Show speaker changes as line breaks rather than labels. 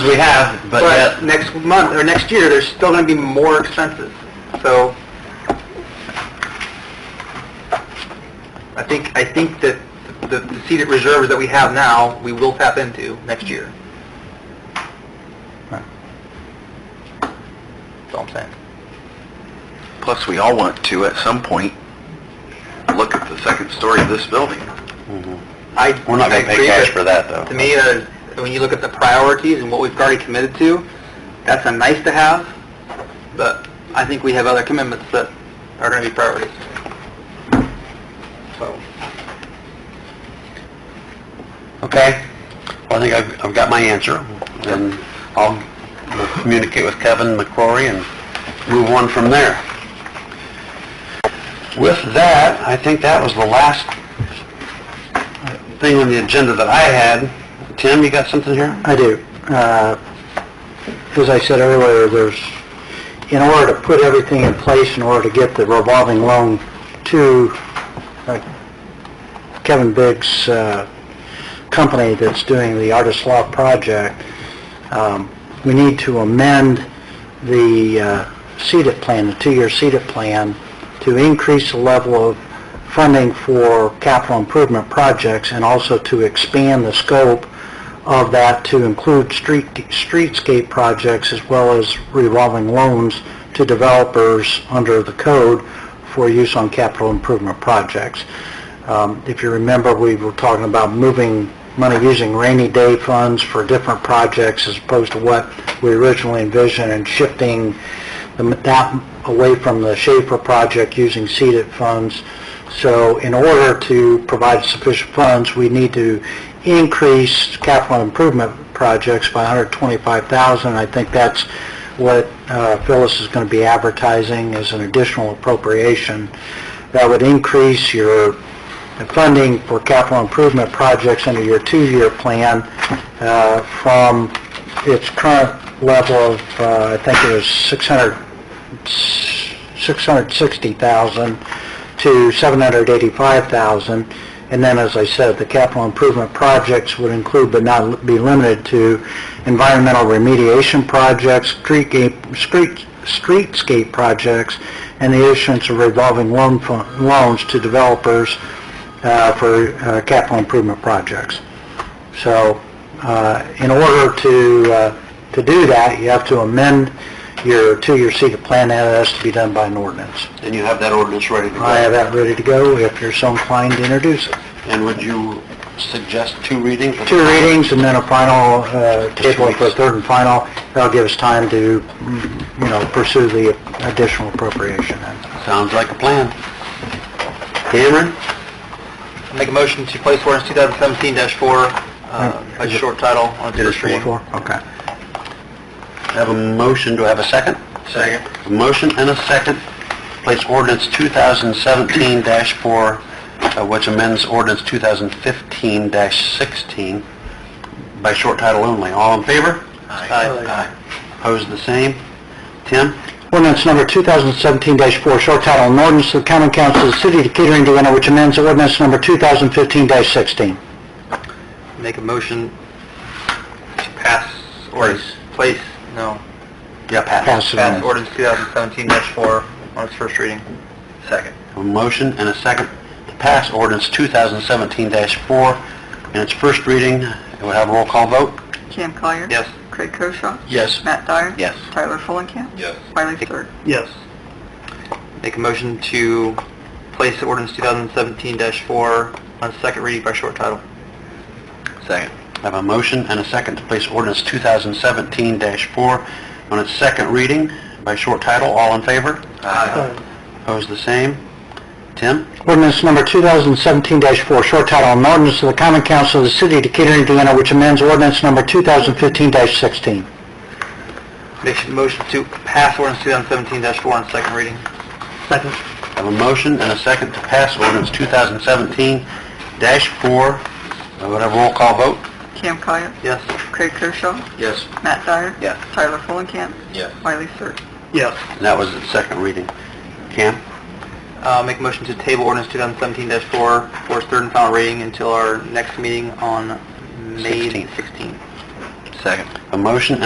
We have, but that-
But next month, or next year, there's still gonna be more expenses, so... I think, I think that the the seated reserves that we have now, we will tap into next year. That's all I'm saying.
plus we all want to at some point look at the second story of this building.
I,
We're not
I
gonna pay
agree
cash
that-
for that, though.
To me, uh, when you look at the priorities and what we've already committed to, that's a nice to have, but I think we have other commitments that are going to be priorities. So,
Okay. Well, I think I've, I've got my answer, and I'll communicate with Kevin McCrory and move on from there. With that, I think that was the last thing on the agenda that I had. Tim, you got something here?
I do. Uh, As I said earlier, there's, in order to put everything in place, in order to get the revolving loan to uh, Kevin Biggs' uh, company that's doing the Artist Loft project, um, we need to amend the uh, CEDAT plan, the two-year CEDAT plan, to increase the level of funding for capital improvement projects and also to expand the scope of that to include street, streetscape projects as well as revolving loans to developers under the code for use on capital improvement projects. Um, If you remember, we were talking about moving money using rainy day funds for different projects as opposed to what we originally envisioned and shifting the- that away from the Schaefer project using seeded funds. So in order to provide sufficient funds, we need to increase capital improvement projects by 125,000. I think that's what uh, Phyllis is going to be advertising as an additional appropriation. That would increase your funding for capital improvement projects under your two-year plan uh, from its current level of, uh, I think it was 600, 660,000 to 785,000. And then, as I said, the capital improvement projects would include but not be limited to environmental remediation projects, streetgate- street- streetscape projects, and the issuance of revolving loan fu- loans to developers uh, for uh, capital improvement projects. So, uh, in order to, uh, to do that, you have to amend your two-year CEDA plan, and it has to be done by an ordinance.
And you have that ordinance ready to go?
I have that ready to go if you're so inclined to introduce it.
And would you suggest two readings?
Two readings and then a final, uh, table for a third and final. That'll give us time to, mm, you know, pursue the additional appropriation.
Sounds like a plan. Cameron?
make a motion to place ordinance 2017-4 uh, by short title on its first reading.
Okay.
Have a motion, do I have a second? Second. A motion and a second, place ordinance 2017-4, uh, which amends ordinance 2015-16 by short title only. All in favor?
Aye.
Opposed, the same? Tim?
Ordinance number 2017-4, short title, an ordinance of the common council of the city of Decatur, Indiana, which amends ordinance number 2015-16.
Make a motion to pass or place, no,
Yeah,
Pass it on.
pass ordinance 2017-4 on its first reading.
Second. A motion and a second to pass ordinance 2017-4 in its first reading. It will have a roll call vote?
Cam Collier.
Yes.
Craig Koshaw.
Yes.
Matt Dyer.
Yes.
Tyler Fulenkamp.
Yes.
Wiley Sir.
Yes. Make a motion to place ordinance 2017-4 on second reading by short title.
Second. I have a motion and a second to place ordinance 2017-4 on its second reading by short title. All in favor? Aye. Opposed, the same? Tim?
Ordinance number 2017-4, short title, an ordinance of the common council of the city of Decatur, Indiana, which amends ordinance number 2015-16.
Make a motion to pass ordinance 2017-4 on second reading.
Second.
I have a motion and a second to pass ordinance 2017-4. I would have a roll call vote?
Cam Collier.
Yes.
Craig Koshaw.
Yes.
Matt Dyer.
Yes.
Tyler Fulenkamp.
Yes.
Wiley Sir.
Yes.
And that was its second reading. Cam?
Uh, make a motion to table ordinance 2017-4 for its third and final reading until our next meeting on May
16th.
16th.
Second. A motion